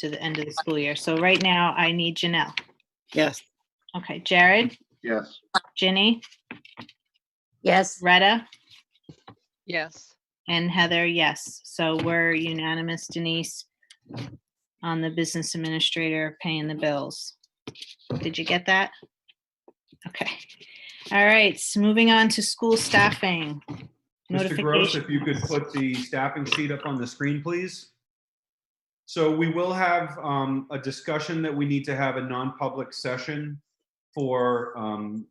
to the end of the school year. So right now I need Janelle. Yes. Okay, Jared, Yes. Ginny, Yes, Retta, Yes. and Heather, yes. So we're unanimous, Denise, on the business administrator paying the bills. Did you get that? Okay. All right, s- moving on to school staffing. Mr. Gross, Notification. if you could put the staffing sheet up on the screen, please. So we will have um, a discussion that we need to have a non-public session for, um,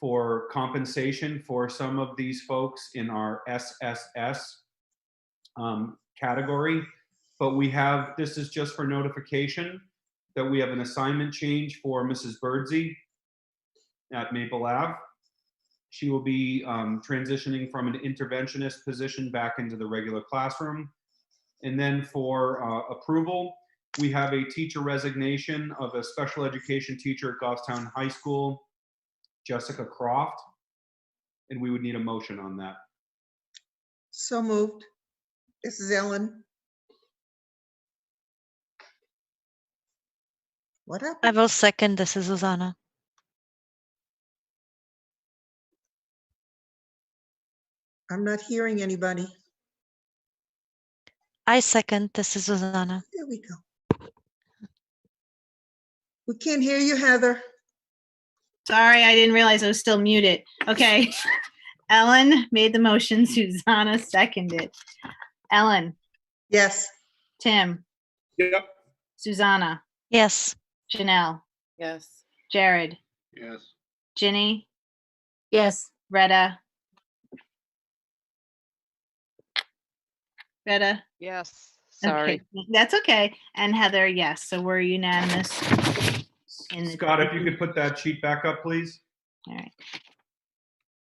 for compensation for some of these folks in our SSS um, category. But we have, this is just for notification, that we have an assignment change for Mrs. Birdsey at Maple Ave. She will be um, transitioning from an interventionist position back into the regular classroom. And then for uh, approval, we have a teacher resignation of a special education teacher at Goffstown High School, Jessica Croft. And we would need a motion on that. So moved. This is Ellen. What up? I will second. This is Susanna. I'm not hearing anybody. I second. This is Susanna. There we go. We can't hear you, Heather. Sorry, I didn't realize I was still muted. Okay. Ellen made the motion, Susanna seconded. Ellen, Yes. Tim, Yep. Susanna, Yes, Janelle, Yes. Jared, Yes. Ginny, yes, Retta. Retta? Yes. Okay, Sorry. That's okay. And Heather, yes. So we're unanimous. in the- Scott, if you could put that sheet back up, please. All right.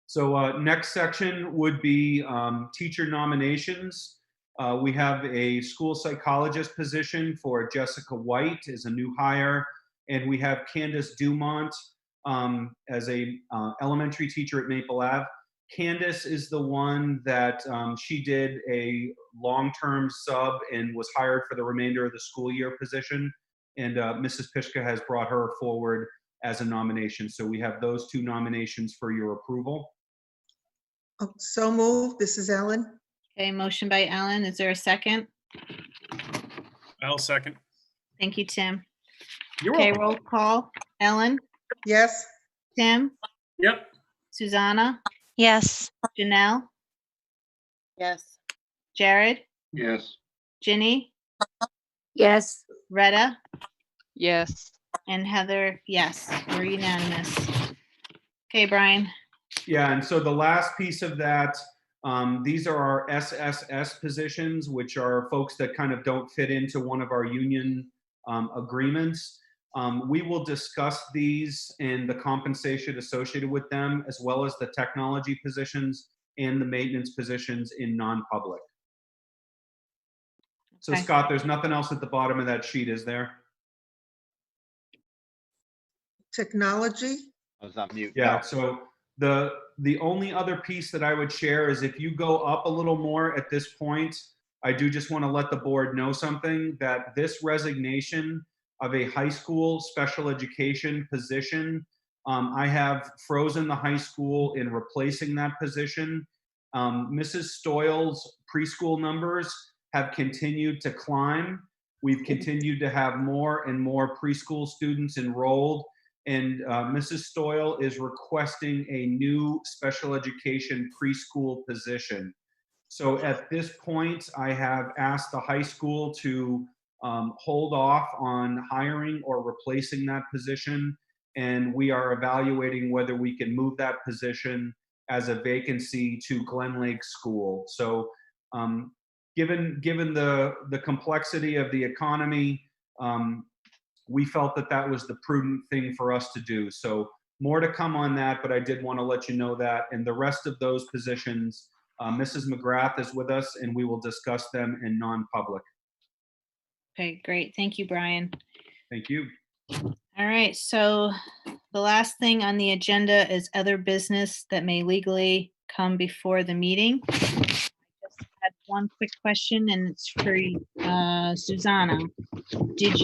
So uh, next section would be um, teacher nominations. Uh, We have a school psychologist position for Jessica White as a new hire. And we have Candace Dumont um, as a uh, elementary teacher at Maple Ave. Candace is the one that um, she did a long-term sub and was hired for the remainder of the school year position. And uh, Mrs. Pishka has brought her forward as a nomination. So we have those two nominations for your approval. Oh, So moved. This is Ellen. Okay, motion by Ellen. Is there a second? I'll second. Thank you, Tim. You're Okay, welcome. roll call. Ellen, Yes. Tim, Yep. Susanna, yes, Janelle, Yes. Jared, Yes. Ginny, yes, Retta, Yes. and Heather, yes. We're unanimous. Okay, Brian. Yeah, and so the last piece of that, um, these are our SSS positions, which are folks that kind of don't fit into one of our union um, agreements. Um, we will discuss these and the compensation associated with them, as well as the technology positions and the maintenance positions in non-public. So Okay. Scott, there's nothing else at the bottom of that sheet, is there? Technology. I was on mute. Yeah, so the, the only other piece that I would share is if you go up a little more at this point, I do just want to let the board know something, that this resignation of a high school special education position, um, I have frozen the high school in replacing that position. Um, Mrs. Stoyle's preschool numbers have continued to climb. We've continued to have more and more preschool students enrolled. And uh, Mrs. Stoyl is requesting a new special education preschool position. So at this point, I have asked the high school to um, hold off on hiring or replacing that position. And we are evaluating whether we can move that position as a vacancy to Glen Lake School. So um, given, given the, the complexity of the economy, um, we felt that that was the prudent thing for us to do. So more to come on that, but I did want to let you know that. And the rest of those positions, uh, Mrs. McGrath is with us and we will discuss them in non-public. Okay, great. Thank you, Brian. Thank you. All right, so the last thing on the agenda is other business that may legally come before the meeting. I just had one quick question, and it's for uh, Susanna. Did you?